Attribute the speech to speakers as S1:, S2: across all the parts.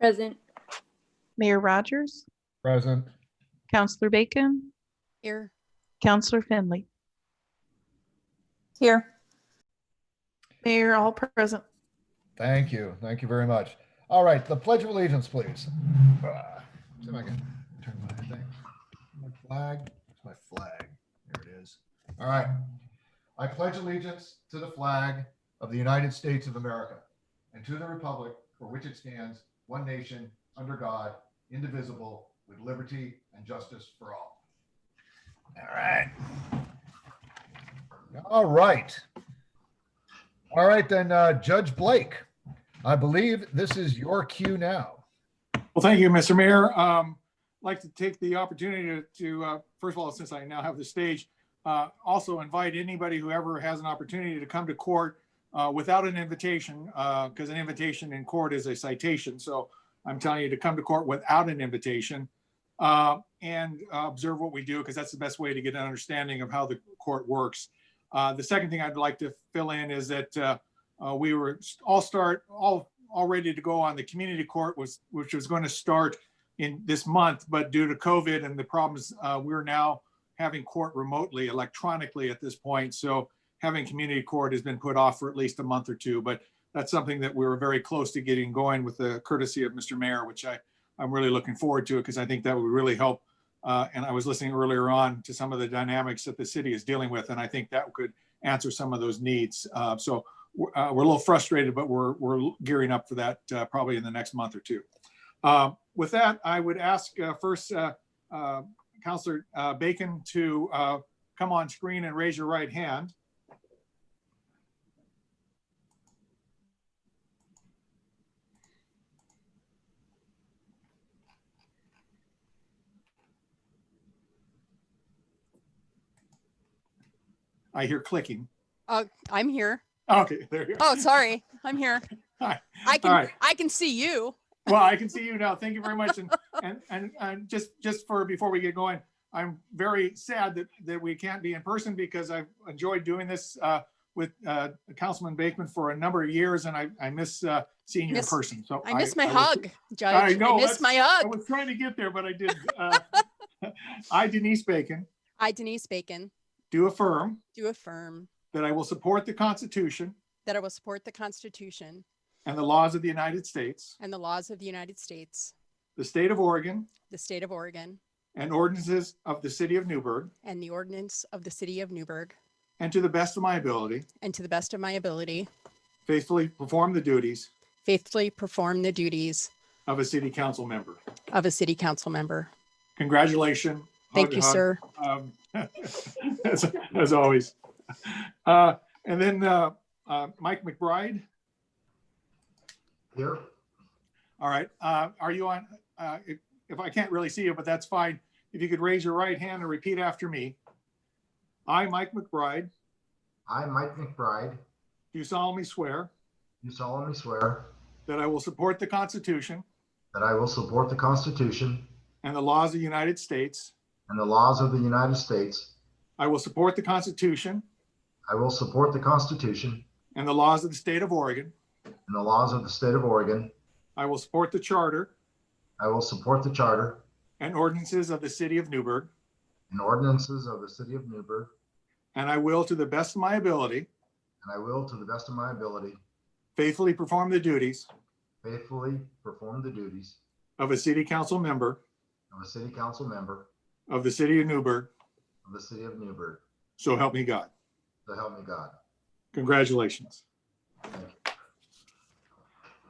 S1: Present.
S2: Mayor Rogers,
S3: Present.
S2: Counselor Bacon,
S4: Here.
S2: Counselor Finley.
S1: Here.
S2: Mayor, all present.
S3: Thank you. Thank you very much. All right, the Pledge of Allegiance, please. Ah, See if I can turn my thing. My flag, It's my flag. There it is. All right. I pledge allegiance to the flag of the United States of America and to the republic for which it stands, one nation, under God, indivisible, with liberty and justice for all. All right. All right. All right, then, uh, Judge Blake, I believe this is your cue now.
S5: Well, thank you, Mr. Mayor. Um, I'd like to take the opportunity to- to, uh, first of all, since I now have the stage, uh, also invite anybody who ever has an opportunity to come to court uh, without an invitation, because an invitation in court is a citation. So I'm telling you to come to court without an invitation uh, and uh, observe what we do, because that's the best way to get an understanding of how the court works. Uh, The second thing I'd like to fill in is that uh, uh, we were all start, all all ready to go on the community court was, which was going to start in this month, but due to COVID and the problems, uh, we're now having court remotely electronically at this point. So having community court has been put off for at least a month or two, but that's something that we were very close to getting going with the courtesy of Mr. Mayor, which I, I'm really looking forward to because I think that would really help. Uh, and I was listening earlier on to some of the dynamics that the city is dealing with, and I think that could answer some of those needs. Uh, so we're uh, we're a little frustrated, but we're, we're gearing up for that uh, probably in the next month or two. Um, With that, I would ask uh, first uh, uh, Counselor uh, Bacon to uh, come on screen and raise your right hand. I hear clicking.
S4: Uh, I'm here.
S5: Okay, there you go.
S4: Oh, sorry. I'm here.
S5: Hi.
S4: I can
S5: right.
S4: I can see you.
S5: Well, I can see you now. Thank you very much. And, and, and, and just, just for, before we get going, I'm very sad that, that we can't be in person because I've enjoyed doing this, uh, with, uh, Councilman Bakeman for a number of years and I, I miss, uh, seeing you in
S4: Miss-
S5: person. So.
S4: I miss my
S5: was-
S4: hug, Judge. I,
S5: know,
S4: miss
S5: that's-
S4: my
S5: I
S4: hug.
S5: was trying to get there, but I did. uh, I Denise Bacon
S4: I, Denise Bacon,
S5: do affirm
S4: do affirm
S5: that I will support the Constitution
S4: that I will support the Constitution
S5: and the laws of the United States,
S4: and the laws of the United States,
S5: the state of Oregon
S4: the state of Oregon,
S5: and ordinances of the city of Newburgh
S4: and the ordinance of the city of Newburgh,
S5: and to the best of my ability,
S4: and to the best of my ability,
S5: faithfully perform the duties
S4: faithfully perform the duties
S5: of a city council member.
S4: of a city council member.
S5: Congratulations.
S4: Thank you,
S5: Hug,
S4: sir.
S5: hug. Um, As as always. Uh, And then uh, uh, Mike McBride,
S3: Here.
S5: all right, uh, are you on? uh, If if I can't really see you, but that's fine. If you could raise your right hand and repeat after me. I, Mike McBride,
S6: I, Mike McBride,
S5: do solemnly swear
S6: do solemnly swear
S5: that I will support the Constitution
S6: that I will support the Constitution
S5: and the laws of the United States.
S6: and the laws of the United States.
S5: I will support the Constitution
S6: I will support the Constitution
S5: and the laws of the state of Oregon.
S6: and the laws of the state of Oregon.
S5: I will support the charter
S6: I will support the charter
S5: and ordinances of the city of Newburgh,
S6: and ordinances of the city of Newburgh,
S5: and I will, to the best of my ability,
S6: and I will, to the best of my ability,
S5: faithfully perform the duties
S6: faithfully perform the duties
S5: of a city council member
S6: of a city council member
S5: of the city of Newburgh,
S6: of the city of Newburgh.
S5: so help me God.
S6: So help me God.
S5: Congratulations.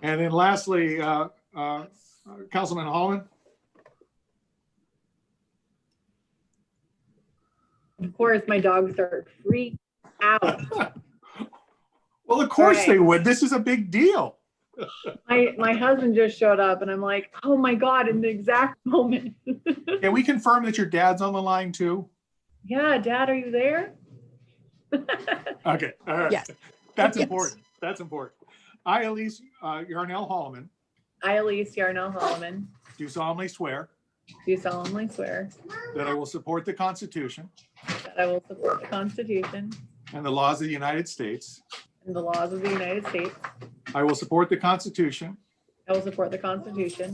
S5: And then lastly, uh, uh, Councilman Holman,
S7: Of course, my dogs are freaked out.
S5: well, of course
S7: Right.
S5: they would. This is a big deal.
S7: My my husband just showed up, and I'm like, oh my god! In the exact moment.
S5: Can we confirm that your dad's on the line too?
S7: yeah, Dad, are you there?
S5: Okay, all right.
S4: Yes.
S5: That's
S4: Yes.
S5: important. That's important. I, Elise uh, Yarnell Holman,
S7: I, Elise Yarnell Holloman,
S5: do solemnly swear
S7: do solemnly swear
S5: that I will support the Constitution
S7: that I will support the Constitution
S5: and the laws of the United States.
S7: and the laws of the United States.
S5: I will support the Constitution
S7: I will support the Constitution